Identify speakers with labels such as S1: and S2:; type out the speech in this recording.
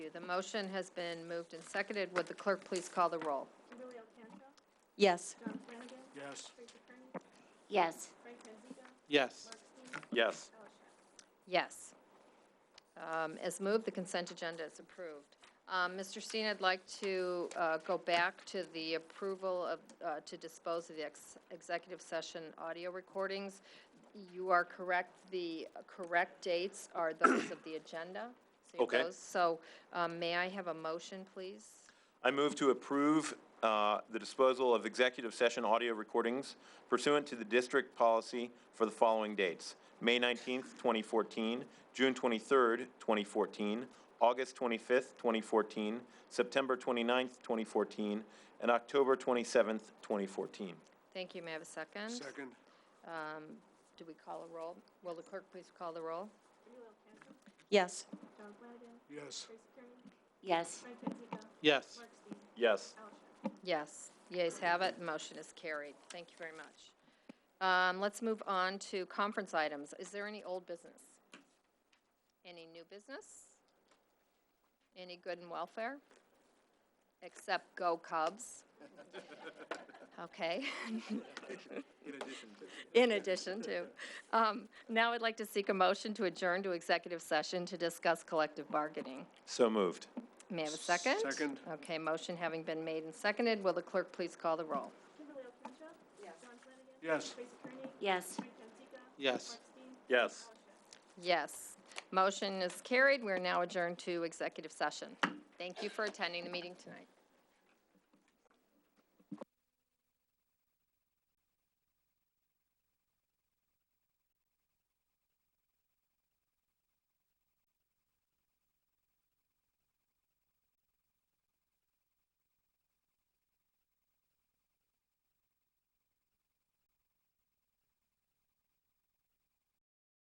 S1: you. The motion has been moved and seconded. Would the clerk please call the roll?
S2: Kimberly Alcantra,
S3: Yes.
S2: John Flanagan,
S4: Yes.
S2: Tracy Kern,
S3: Yes.
S2: Frank Manziga,
S4: Yes.
S2: Mark Steiner,
S5: Yes.
S2: Alice Shaw.
S1: Yes. Um, As moved, the consent agenda is approved. Um, Mr. Steen, I'd like to uh, go back to the approval of, uh, to dispose of the ex- executive session audio recordings. You are correct, the correct dates are those of the agenda. So you
S5: Okay.
S1: those- So um, may I have a motion, please?
S5: I move to approve uh, the disposal of executive session audio recordings pursuant to the district policy for the following dates: May 19th, 2014, June 23rd, 2014, August 25th, 2014, September 29th, 2014, and October 27th, 2014.
S1: Thank you, may I have a second?
S4: Second.
S1: Um, Do we call a roll? Will the clerk please call the roll?
S2: Kimberly Alcantra,
S3: Yes.
S2: John Flanagan,
S4: Yes.
S2: Tracy Kern,
S3: Yes.
S2: Frank Manziga,
S4: Yes.
S2: Mark Steiner,
S5: Yes.
S2: Alice Shaw.
S1: Yes, yeas have it, motion is carried. Thank you very much. Um, Let's move on to conference items. Is there any old business? Any new business? Any good and welfare? Except go Cubs. Okay. In addition to. Um, Now I'd like to seek a motion to adjourn to executive session to discuss collective bargaining.
S5: So moved.
S1: May I have a second?
S4: Second.
S1: Okay, motion having been made and seconded, will the clerk please call the roll?
S2: Kimberly Alcantra, John Flanagan,
S4: Yes.
S2: Tracy Kern,
S3: Yes.
S2: Frank Manziga,
S4: Yes.
S2: Mark Steiner,
S5: Yes.
S2: Alice Shaw.
S1: Yes. Motion is carried. We're now adjourned to executive session. Thank you for attending the meeting tonight.